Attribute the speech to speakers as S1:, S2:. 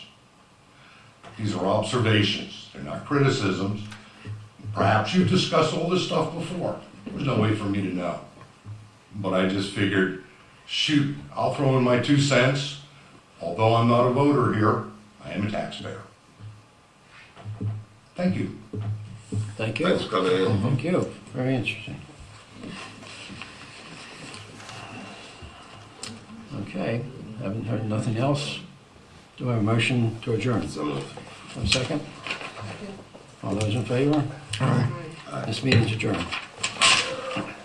S1: These are observations, they're not criticisms. Perhaps you've discussed all this stuff before. There's no way for me to know. But I just figured, shoot, I'll throw in my two cents. Although I'm not a voter here, I am a taxpayer. Thank you.
S2: Thank you.
S3: Thanks for coming in.
S2: Thank you. Very interesting. Okay, haven't heard nothing else. Do I have a motion to adjourn?
S3: So moved.
S2: A second? All those in favor? This meeting's adjourned.